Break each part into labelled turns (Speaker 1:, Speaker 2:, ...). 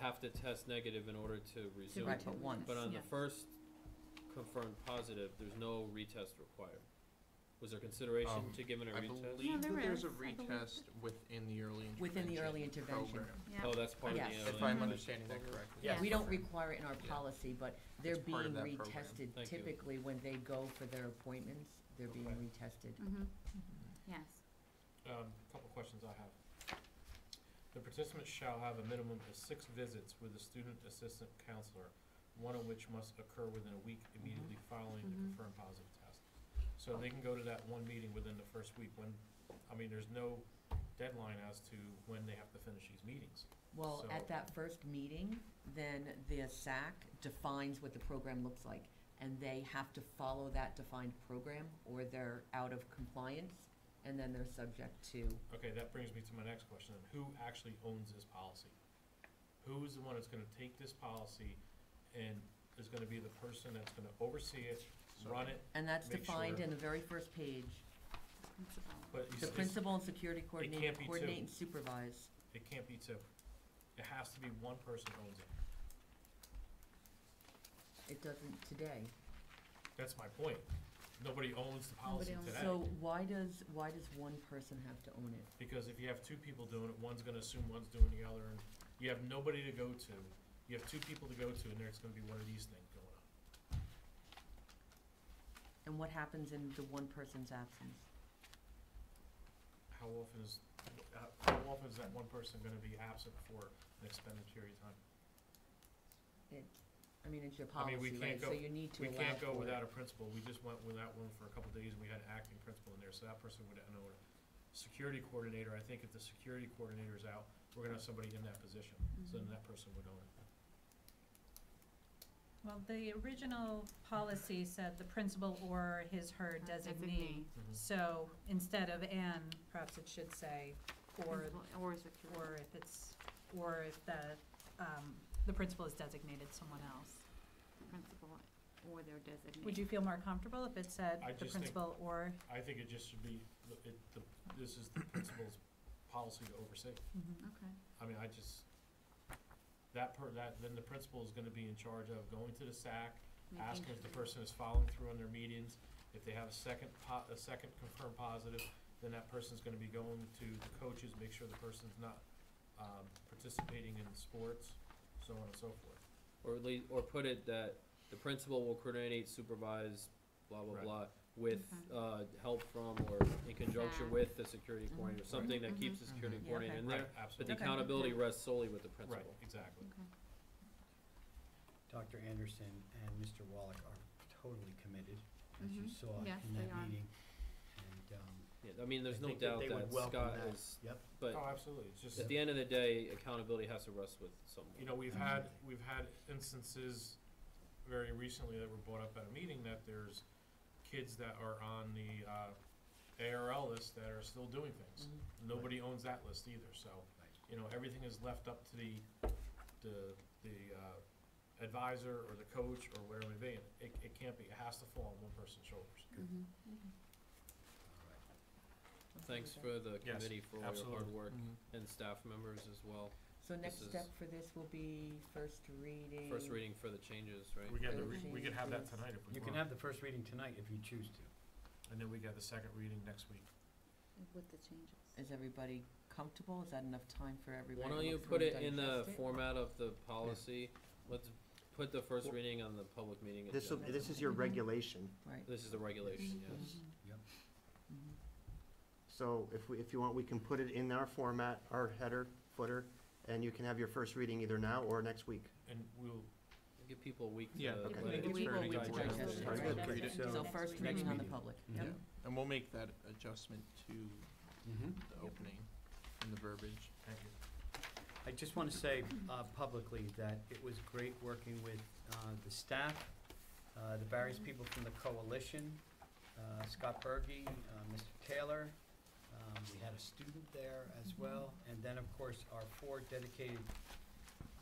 Speaker 1: have to test negative in order to resume.
Speaker 2: Right, but once,
Speaker 1: But on the
Speaker 2: yeah.
Speaker 1: first confirmed positive, there's no retest required. Was there consideration
Speaker 3: Um,
Speaker 1: to giving a
Speaker 3: I
Speaker 1: retest?
Speaker 3: believe
Speaker 2: there
Speaker 3: that there's a
Speaker 2: is. I believe-
Speaker 3: retest within the early intervention
Speaker 2: Within the early intervention.
Speaker 3: program,
Speaker 1: Oh, that's part of the.
Speaker 2: Yes.
Speaker 3: If
Speaker 1: early
Speaker 3: I'm
Speaker 1: intervention
Speaker 3: understanding that
Speaker 1: program.
Speaker 3: correctly.
Speaker 4: Yes.
Speaker 2: We don't require it in our
Speaker 3: Yeah.
Speaker 2: policy, but they're
Speaker 3: It's part
Speaker 2: being
Speaker 3: of that program.
Speaker 2: retested
Speaker 1: Thank you.
Speaker 2: typically when they go for their appointments, they're being
Speaker 4: Okay.
Speaker 2: retested.
Speaker 5: Mm-hmm, yes.
Speaker 4: Um, couple questions I have. The participant shall have a minimum of six visits with a student assistant counselor, one of which must occur within a week
Speaker 2: Mm-hmm.
Speaker 4: immediately following the
Speaker 5: Mhm.
Speaker 4: confirmed positive test. So they can go to that one meeting within the first week when, I mean, there's no deadline as to when they have to finish these meetings.
Speaker 2: Well,
Speaker 4: So-
Speaker 2: at that first meeting, then the SAC defines what the program looks like, and they have to follow that defined program, or they're out of compliance, and then they're subject to,
Speaker 4: Okay, that brings me to my next question, then. who actually owns this policy? Who's the one that's gonna take this policy and is gonna be the person that's gonna oversee it, run it?
Speaker 2: and that's
Speaker 4: Make
Speaker 2: defined
Speaker 4: sure-
Speaker 2: in the very first page.
Speaker 5: Principal.
Speaker 4: But you
Speaker 2: The
Speaker 4: s-
Speaker 2: principal and security coordinator
Speaker 4: can't be two.
Speaker 2: coordinate and supervise.
Speaker 4: It can't be two. It has to be one person owns it.
Speaker 2: It doesn't today.
Speaker 4: That's my point. Nobody owns the policy
Speaker 5: Nobody owns
Speaker 2: So
Speaker 4: today.
Speaker 2: why does, why does one person have to own it?
Speaker 4: Because if you have two people doing it, one's gonna assume one's doing the other, and you have nobody to go to. You have two people to go to, and there's gonna be one of these things going on.
Speaker 2: And what happens in the one person's absence?
Speaker 4: How often is, uh, how often is that one person gonna be absent for an extended period of time?
Speaker 2: It, I mean, it's your
Speaker 4: I mean, we
Speaker 2: policy, right,
Speaker 4: can't
Speaker 2: so
Speaker 4: go-
Speaker 2: you need to
Speaker 4: We
Speaker 2: allow
Speaker 4: can't go
Speaker 2: for it.
Speaker 4: without a principal. We just went without one for a couple days, and we had an acting principal in there, so that person would own it. Security coordinator, I think if the security coordinator is out, we're gonna have somebody in that position, so then
Speaker 2: Mm-hmm.
Speaker 5: Mhm.
Speaker 4: that person would own it.
Speaker 6: Well, the original policy said the principal or his, her designee.
Speaker 1: Mm-hmm.
Speaker 2: Mm-hmm.
Speaker 6: So instead of "and," perhaps it should say "or,"
Speaker 5: Principal Or security.
Speaker 6: or if it's, or if the, um, the principal is designated someone else.
Speaker 5: Principal or their designee.
Speaker 6: Would you feel more comfortable if it said
Speaker 4: I
Speaker 6: the
Speaker 4: just think-
Speaker 6: principal or?
Speaker 4: I think it just should be, it, the, this is the principal's policy to oversee.
Speaker 6: Mhm.
Speaker 5: Mm-hmm. Okay,
Speaker 4: I mean, I just, that per, that, then the principal is gonna be in charge of going to the SAC,
Speaker 5: making
Speaker 4: asking if the
Speaker 5: sure.
Speaker 4: person is following through on their meetings. If they have a second po, a second confirmed positive, then that person's gonna be going to the coaches, make sure the person's not, um, participating in sports, so on and so forth.
Speaker 1: Or at least, or put it that the principal will coordinate, supervise, blah, blah,
Speaker 4: Right.
Speaker 1: blah, with, uh, help from or in conjunction
Speaker 5: Back.
Speaker 1: with the security coordinator, something that keeps the
Speaker 3: Mhm.
Speaker 1: security
Speaker 3: Mhm.
Speaker 2: Mm-hmm. Yeah,
Speaker 1: coordinator in
Speaker 4: Right,
Speaker 1: there. But the
Speaker 4: absolutely.
Speaker 2: Okay.
Speaker 1: accountability rests solely with the
Speaker 4: Right,
Speaker 1: principal.
Speaker 4: exactly.
Speaker 5: Okay.
Speaker 7: Dr. Anderson and Mr. Wallach are totally committed, as you
Speaker 5: Mhm.
Speaker 7: saw in
Speaker 5: Yes, they are.
Speaker 7: that meeting. And, um,
Speaker 1: Yeah, I mean, there's
Speaker 7: I
Speaker 1: no
Speaker 7: think that
Speaker 1: doubt
Speaker 7: they
Speaker 1: that
Speaker 7: would welcome
Speaker 1: Scott
Speaker 7: that.
Speaker 1: is,
Speaker 7: Yep,
Speaker 1: but
Speaker 4: Oh, absolutely, it's just,
Speaker 1: At the end of the day, accountability has to rest with someone.
Speaker 4: you know, we've had, we've had instances very recently that were brought up at a meeting that there's kids that are on the, uh, ARL list that are still doing things.
Speaker 2: Mhm.
Speaker 4: Nobody owns that list either, so. you know, everything is left up to the, the, the uh, advisor or the coach or whatever it may be. And It, it can't be, it has to fall on one person's shoulders.
Speaker 6: Mm-hmm.
Speaker 5: Mhm.
Speaker 7: all right.
Speaker 1: Thanks for the
Speaker 4: Yes,
Speaker 1: committee for all your hard
Speaker 4: absolutely.
Speaker 1: work and staff members as well.
Speaker 2: So next
Speaker 1: is-
Speaker 2: step for this will be first reading.
Speaker 1: First reading for the changes, right?
Speaker 4: We got the,
Speaker 2: Okay.
Speaker 4: re- we could have that tonight if we
Speaker 7: You can
Speaker 4: want.
Speaker 7: have the first reading tonight if you choose to.
Speaker 4: And then we got the second reading next week.
Speaker 5: With the changes.
Speaker 2: Is everybody comfortable? Is that enough time for everybody?
Speaker 1: Why
Speaker 2: to
Speaker 1: don't you
Speaker 2: look
Speaker 1: put
Speaker 2: through
Speaker 1: it
Speaker 2: and
Speaker 1: in the
Speaker 2: digest it?
Speaker 1: format of the policy? Let's put the first reading on the public meeting
Speaker 8: This, will-
Speaker 1: agenda.
Speaker 8: this is your
Speaker 7: Mm-hmm.
Speaker 8: regulation,
Speaker 2: Right.
Speaker 1: This is the regulation,
Speaker 2: Mm-hmm.
Speaker 1: yes.
Speaker 2: mhm.
Speaker 8: so if we, if you want, we can put it in our format, our header, footer, and you can have your first reading either now or next week.
Speaker 4: And we'll,
Speaker 1: Give people a week to.
Speaker 3: Yeah,
Speaker 1: let
Speaker 3: okay.
Speaker 1: it-
Speaker 2: Give people a week to
Speaker 3: digest
Speaker 2: digest
Speaker 3: it.
Speaker 2: it,
Speaker 3: Sounds
Speaker 2: right?
Speaker 3: good. Read it.
Speaker 2: So
Speaker 6: Next
Speaker 2: first
Speaker 6: meeting.
Speaker 2: reading on the
Speaker 7: Next
Speaker 2: public.
Speaker 7: meeting.
Speaker 2: Yep.
Speaker 3: And we'll make that adjustment to
Speaker 7: Mhm.
Speaker 3: the opening and the verbiage.
Speaker 4: thank you.
Speaker 7: I just want to say uh, publicly that it was great working with uh, the staff, uh, the various people from the coalition, uh, Scott Bergy, uh, Mr. Taylor. um, We had a student there as well. And then, of course, our four dedicated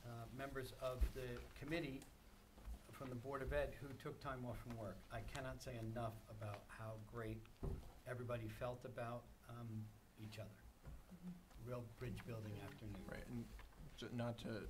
Speaker 7: uh, members of the committee from the Board of Ed who took time off from work. I cannot say enough about how great everybody felt about um, each other. Real bridge building afternoon.
Speaker 3: Right, and j- not to